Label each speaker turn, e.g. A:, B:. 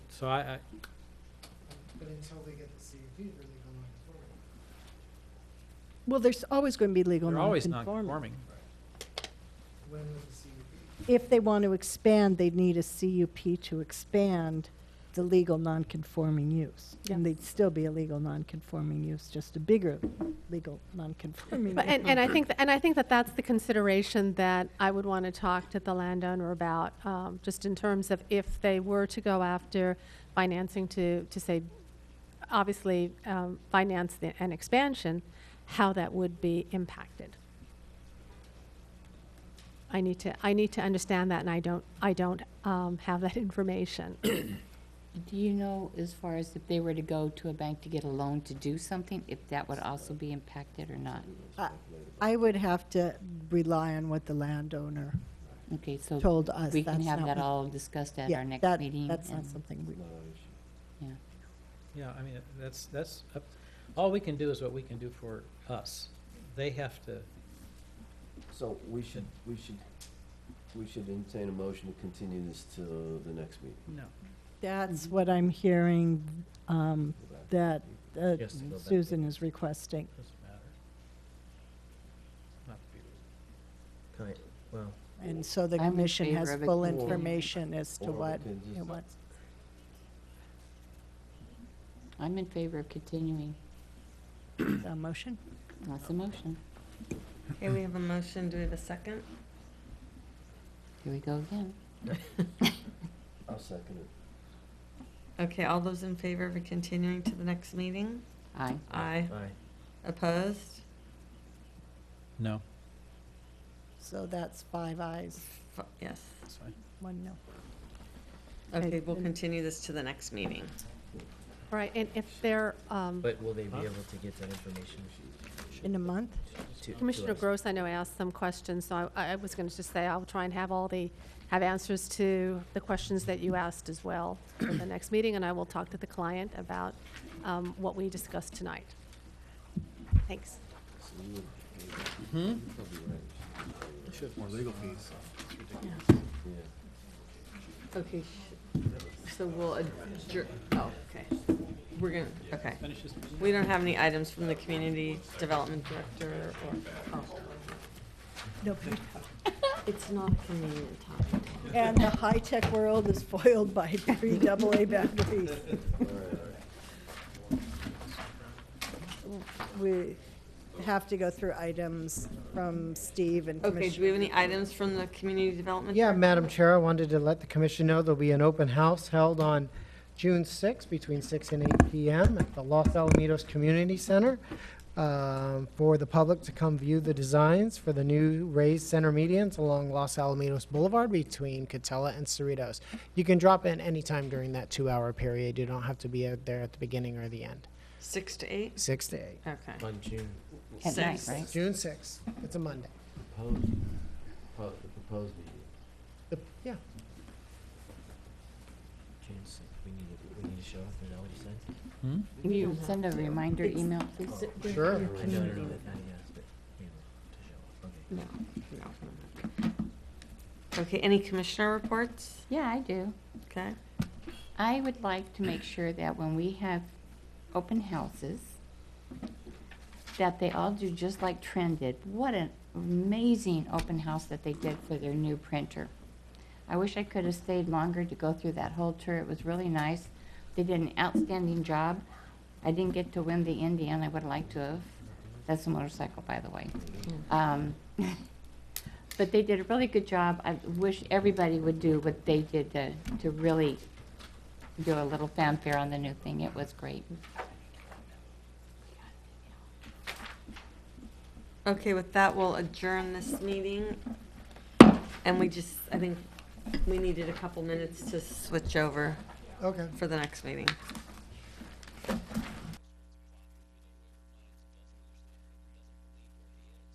A: So I, I,
B: But until they get the CUP, they're legal non-conforming.
C: Well, there's always going to be legal
A: they're always
C: nonconforming.
A: non-conforming.
B: When was the CUP?
C: If they want to expand, they'd need a CUP to expand the legal nonconforming use. And they'd still be a legal nonconforming use, just a bigger legal nonconforming.
D: But, and,
C: use.
D: and I think, and I think that that's the consideration that I would want to talk to the landowner about, um, just in terms of if they were to go after financing to, to say, obviously, um, finance the- an expansion, how that would be impacted. I need to, I need to understand that, and I don't, I don't, um, have that information.
E: Do you know, as far as if they were to go to a bank to get a loan to do something, if that would also be impacted or not?
C: I would have to rely on what the landowner
E: Okay, so
C: told us.
E: we can
C: That's
E: have
C: not
E: that
C: what-
E: all discussed at
C: Yeah,
E: our next
C: that-
E: meeting?
C: That's not
E: and-
C: something we,
E: yeah.
A: Yeah, I mean, that's, that's, up- all we can do is what we can do for us. They have to,
F: So we should, we should, we should entertain a motion to continue this to the next meeting.
A: no.
C: that's
E: Mhm.
C: what I'm hearing, um,
F: Go back.
C: that uh,
A: Yes, to go back.
C: Susan is requesting.
A: Doesn't matter. Not to be rude.
G: Kind, well,
C: And so the
E: I'm in
C: commission has
E: favor of it
C: full
E: continuing.
C: information as to
F: Or we
C: what
F: can just-
C: it wants.
E: I'm in favor of continuing.
C: A motion?
E: That's the motion.
H: Okay, we have a motion. Do we have a second?
E: Here we go again.
F: I'll second it.
H: Okay, all those in favor of continuing to the next meeting?
E: Aye.
H: Aye.
G: aye.
H: Opposed?
A: No,
C: So that's five ayes,
H: F- Yes.
A: that's fine.
C: one no.
H: Okay, we'll
C: then-
H: continue this to the next meeting.
D: All right, and if they're, um,
G: But will they be
A: Huh?
G: able to get that information
C: In a month?
G: to? to
D: Commissioner
G: us?
D: Gross, I know asked some questions, so I, I was going to just say I'll try and have all the, have answers to the questions that you asked as well for the next meeting, and I will talk to the client about um, what we discussed tonight. Thanks.
F: So you would- you're probably right. Yeah.
H: Okay, so we'll adjourn, oh, okay. We're gonna, okay.
A: Finish this meeting.
H: We don't have any items from the community development director or, oh.
C: No.
H: It's not a convenient time.
C: And the high-tech world is foiled by three AA batteries. We have to go through items from Steve and
H: Okay, do we
C: Commissioner.
H: have any items from the community development?
I: Yeah, Madam Chair, I wanted to let the commission know there'll be an open house held on June 6th between 6 and 8 PM at the Los Alamitos Community Center um, for the public to come view the designs for the new raised center medians along Los Alamitos Boulevard between Catella and Cerritos. You can drop in anytime during that two-hour period. You don't have to be out there at the beginning or the end,
H: Six to eight?
I: 6 to 8.
H: Okay.
G: On June,
E: At night,
H: Six.
E: right?
I: June 6th, it's a Monday.
F: Proposed, pro- the proposed meeting.
I: The- Yeah.
G: June sixth, we need to, we need to show up, is that what you said?
A: Hmm?
E: Will you send a reminder email, please?
F: Oh,
I: Sure.
G: I know, no, no, not yet, but, you know, to show up, okay.
H: No, no. Okay, any commissioner reports?
E: Yeah, I do.
H: Okay.
E: I would like to make sure that when we have open houses, that they all do just like Trend did. What an amazing open house that they did for their new printer. I wish I could have stayed longer to go through that whole tour. It was really nice. They did an outstanding job. I didn't get to win the Indian. I would have liked to have. That's a motorcycle, by the way. Um, but they did a really good job. I wish everybody would do what they did to, to really do a little fanfare on the new thing. It was great.
H: Okay, with that, we'll adjourn this meeting. And we just, I think we needed a couple minutes to switch over
I: Okay.
H: for the next meeting.